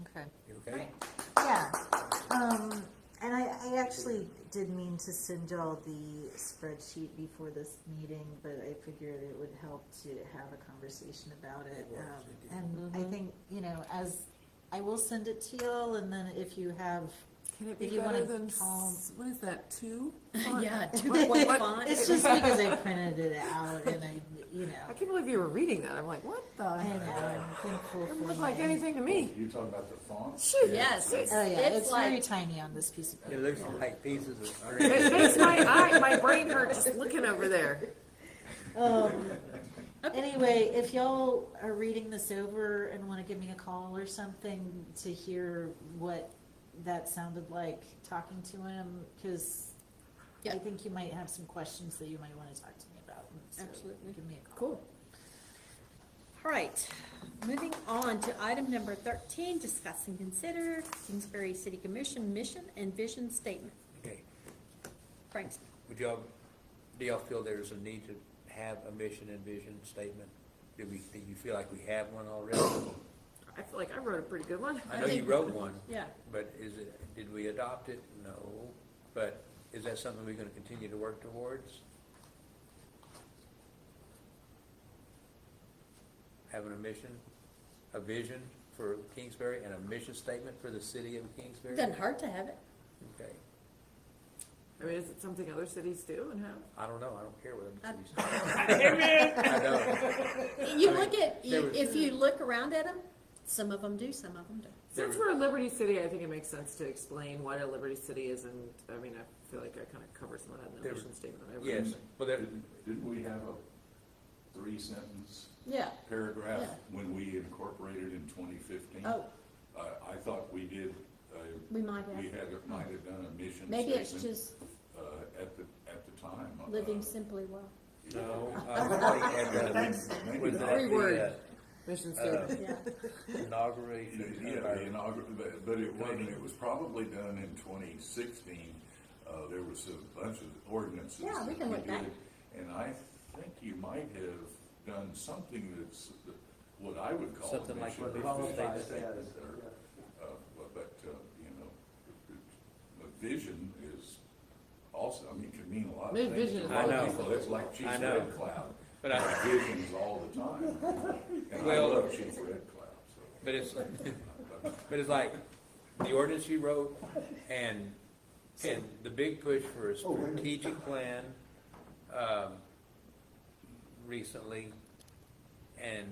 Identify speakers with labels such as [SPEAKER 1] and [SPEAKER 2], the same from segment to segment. [SPEAKER 1] Okay.
[SPEAKER 2] You okay?
[SPEAKER 3] Yeah, um, and I, I actually did mean to send y'all the spreadsheet before this meeting, but I figured it would help to have a conversation about it.
[SPEAKER 2] Yes,
[SPEAKER 3] Um,
[SPEAKER 2] it did.
[SPEAKER 3] And
[SPEAKER 1] Mm-hmm.
[SPEAKER 3] I think, you know, as, I will send it to y'all, and then if you have,
[SPEAKER 4] Can it
[SPEAKER 3] If
[SPEAKER 4] be
[SPEAKER 3] you wanna
[SPEAKER 4] better than,
[SPEAKER 3] call-
[SPEAKER 4] s- what is that, two?
[SPEAKER 1] Yeah,
[SPEAKER 4] What-
[SPEAKER 1] two
[SPEAKER 4] what-
[SPEAKER 1] point
[SPEAKER 4] what-
[SPEAKER 1] font.
[SPEAKER 3] it's just because I printed it out and I, you
[SPEAKER 4] I
[SPEAKER 3] know,
[SPEAKER 4] can't believe you were reading that, I'm like, what the?
[SPEAKER 3] I know,
[SPEAKER 4] heck?
[SPEAKER 3] I'm thankful
[SPEAKER 4] Doesn't
[SPEAKER 3] for
[SPEAKER 4] look like
[SPEAKER 3] my.
[SPEAKER 4] anything to me.
[SPEAKER 5] You Oh, talking about the font?
[SPEAKER 4] Shoot.
[SPEAKER 1] Yes, it's,
[SPEAKER 3] Oh, yeah,
[SPEAKER 1] it's
[SPEAKER 3] it's very
[SPEAKER 1] like,
[SPEAKER 3] tiny on this piece of
[SPEAKER 2] It
[SPEAKER 3] paper.
[SPEAKER 2] looks like pieces of
[SPEAKER 4] It
[SPEAKER 2] string.
[SPEAKER 4] makes my eye, my brain hurt just looking over there.
[SPEAKER 3] Um, Anyway, if y'all are reading this over and wanna give me a call or something to hear what that sounded like talking to him, cause I
[SPEAKER 1] Yeah.
[SPEAKER 3] think you might have some questions that you might wanna talk to me about. and so
[SPEAKER 1] Absolutely.
[SPEAKER 3] Give me a call.
[SPEAKER 1] cool. All right, moving on to item number thirteen, discuss and consider Kingsbury City Commission mission and vision statement.
[SPEAKER 2] Okay.
[SPEAKER 1] Frank's,
[SPEAKER 2] Would y'all, do y'all feel there's a need to have a mission and vision statement? Do we, do you feel like we have one already?
[SPEAKER 4] I feel like I wrote a pretty good one.
[SPEAKER 2] I know you wrote one,
[SPEAKER 1] yeah,
[SPEAKER 2] but is it, did we adopt it? No. But is that something we're gonna continue to work towards? Having a mission, a vision for Kingsbury and a mission statement for the city of Kingsbury?
[SPEAKER 1] doesn't hurt to have it.
[SPEAKER 2] Okay.
[SPEAKER 4] I mean, is it something other cities do and have?
[SPEAKER 2] I don't know, I don't care what
[SPEAKER 1] I-
[SPEAKER 2] the city's. I don't.
[SPEAKER 1] You
[SPEAKER 2] I mean,
[SPEAKER 1] look at,
[SPEAKER 2] there
[SPEAKER 1] you-
[SPEAKER 2] was-
[SPEAKER 1] if you look around at them, some of them do, some of them don't.
[SPEAKER 4] Since we're a Liberty City, I think it makes sense to explain what a Liberty City is and, I mean, I feel like I kind of covered some of that in the
[SPEAKER 2] There-
[SPEAKER 4] mission statement. I wrote.
[SPEAKER 2] Yes, well, there,
[SPEAKER 5] Didn't didn't we have a three sentence
[SPEAKER 1] Yeah,
[SPEAKER 5] paragraph
[SPEAKER 1] Yeah.
[SPEAKER 5] when we incorporated in twenty fifteen?
[SPEAKER 1] oh,
[SPEAKER 5] I, I thought we did, uh,
[SPEAKER 1] we might
[SPEAKER 5] we
[SPEAKER 1] have,
[SPEAKER 5] had, might have done a mission
[SPEAKER 1] maybe it's
[SPEAKER 5] statement,
[SPEAKER 1] just
[SPEAKER 5] uh, at the, at the time. uh,
[SPEAKER 1] living simply well,
[SPEAKER 5] yeah.
[SPEAKER 2] no, I thought you uh, had that
[SPEAKER 5] Maybe
[SPEAKER 2] with
[SPEAKER 5] not.
[SPEAKER 2] that, the
[SPEAKER 4] Reword. Mission
[SPEAKER 2] uh,
[SPEAKER 4] statement.
[SPEAKER 1] yeah.
[SPEAKER 5] Yeah,
[SPEAKER 2] inauguration. of our-
[SPEAKER 5] the inaugural, but, but it wasn't, it was probably done in twenty sixteen, uh, there was a bunch of ordinances.
[SPEAKER 1] Yeah, we
[SPEAKER 5] that
[SPEAKER 1] can look back.
[SPEAKER 5] did, And I think you might have done something that's, that- what I would call. a
[SPEAKER 2] Something like
[SPEAKER 5] mission
[SPEAKER 2] what
[SPEAKER 5] or
[SPEAKER 2] Paul
[SPEAKER 5] vision
[SPEAKER 2] said.
[SPEAKER 5] statement or, uh, but- But, uh, you know, the vision is also, I mean, can mean a lot of
[SPEAKER 4] Maybe
[SPEAKER 5] things.
[SPEAKER 4] vision
[SPEAKER 5] to
[SPEAKER 4] is
[SPEAKER 5] a lot
[SPEAKER 2] I
[SPEAKER 5] of
[SPEAKER 2] know.
[SPEAKER 5] people. It's like Chief
[SPEAKER 2] I know.
[SPEAKER 5] Red Cloud,
[SPEAKER 2] But I,
[SPEAKER 5] visions all the time. And I
[SPEAKER 2] Well-
[SPEAKER 5] love Chief Red Cloud, so.
[SPEAKER 2] but it's, but it's like, the ordinance you wrote, and, and the big push for a strategic plan, um, recently, and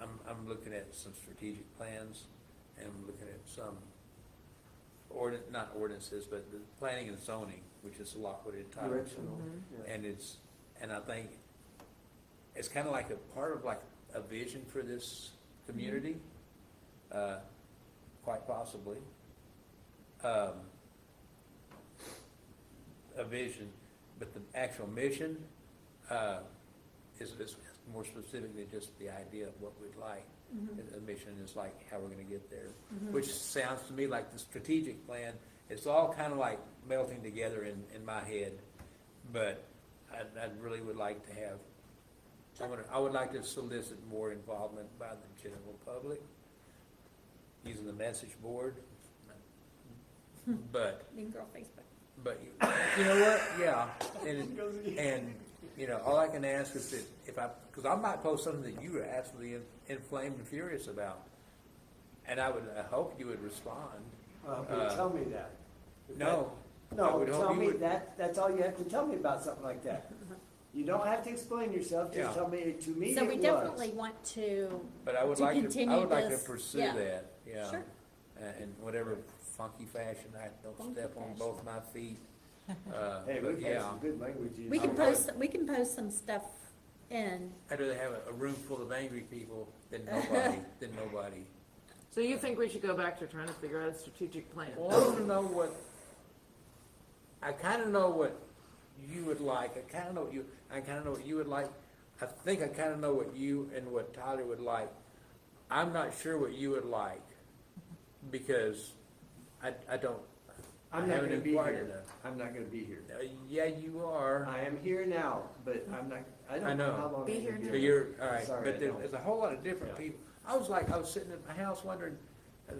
[SPEAKER 2] I'm, I'm looking at some strategic plans, and I'm looking at some ordin, not ordinances, but the planning and zoning, which is a lot what it ties.
[SPEAKER 1] Mm-hmm.
[SPEAKER 2] And it's, and I think, it's kind of like a part of like a vision for this community, uh, quite possibly. Um, a vision, but the actual mission, uh, is, is more specific than just the idea of what we'd like. A- A mission is like how we're gonna get there, which sounds to me like the strategic plan, it's all kind of like melting together in, in my head. But I, I really would like to have, I would, I would like to solicit more involvement by the general public, using the message board. But
[SPEAKER 1] Mean Girl Facebook.
[SPEAKER 2] but you- you know what? Yeah, and and you know, all I can ask is that if I, because I might post something that you were absolutely in- inflamed and furious about, and I would I hope you would respond.
[SPEAKER 6] Uh,
[SPEAKER 2] Uh,
[SPEAKER 6] but tell me that. If
[SPEAKER 2] No,
[SPEAKER 6] that-
[SPEAKER 2] I
[SPEAKER 6] No,
[SPEAKER 2] would hope
[SPEAKER 6] tell
[SPEAKER 2] you
[SPEAKER 6] me
[SPEAKER 2] would-
[SPEAKER 6] that, that's all you have to tell me about something like that. You don't have to explain yourself,
[SPEAKER 2] Yeah.
[SPEAKER 6] just tell me, to me
[SPEAKER 1] So
[SPEAKER 6] it
[SPEAKER 1] we
[SPEAKER 6] was.
[SPEAKER 1] definitely want to,
[SPEAKER 2] but I would
[SPEAKER 1] To
[SPEAKER 2] like to I
[SPEAKER 1] continue
[SPEAKER 2] would like to
[SPEAKER 1] this,
[SPEAKER 2] pursue
[SPEAKER 1] yeah.
[SPEAKER 2] that. Yeah,
[SPEAKER 1] Sure.
[SPEAKER 2] uh, in whatever funky fashion I don't
[SPEAKER 1] Funky
[SPEAKER 2] step on
[SPEAKER 1] fashion.
[SPEAKER 2] both my feet. Uh,
[SPEAKER 6] Hey,
[SPEAKER 2] but
[SPEAKER 6] we've had
[SPEAKER 2] yeah,
[SPEAKER 6] some good language. used.
[SPEAKER 1] we can
[SPEAKER 6] Okay.
[SPEAKER 1] post, we can post some stuff in,
[SPEAKER 2] I'd rather have a, a room full of angry people than nobody than nobody.
[SPEAKER 4] So you think we should go back to trying to figure out a strategic plan?
[SPEAKER 2] Well, I want to know what, I kind of know what you would like, I kind of know what you, I kind of know what you would like. I think I kind of know what you and what Tyler would like. I'm not sure what you would like, because I, I don't, I
[SPEAKER 6] I'm not
[SPEAKER 2] haven't
[SPEAKER 6] gonna be
[SPEAKER 2] inquired
[SPEAKER 6] here,
[SPEAKER 2] enough.
[SPEAKER 6] I'm not gonna be here.
[SPEAKER 2] Uh, Yeah, you are,
[SPEAKER 6] I am here now, but I'm not, I
[SPEAKER 2] I
[SPEAKER 6] don't know
[SPEAKER 2] know.
[SPEAKER 6] how long.
[SPEAKER 4] Be
[SPEAKER 6] I'm
[SPEAKER 4] here
[SPEAKER 6] gonna
[SPEAKER 4] now.
[SPEAKER 2] but you're, all
[SPEAKER 6] I'm
[SPEAKER 2] right,
[SPEAKER 6] sorry, I
[SPEAKER 2] but there-
[SPEAKER 6] don't.
[SPEAKER 2] there's a whole lot of different
[SPEAKER 6] Yeah.
[SPEAKER 2] people. I was like, I was sitting at my house wondering, uh,